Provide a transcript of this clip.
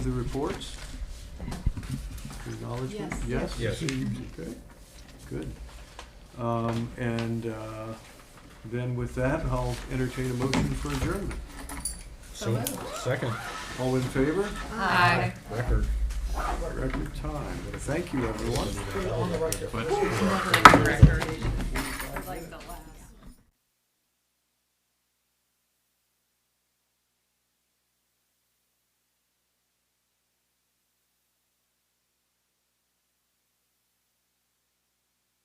The reports? Acknowledgement? Yes. Yes. received. Okay, good. Um, And uh, then with that, I'll entertain a motion for adjournment. So, second, All in favor? Aye. record. Record time. Thank you, everyone. Never a record. Like the last.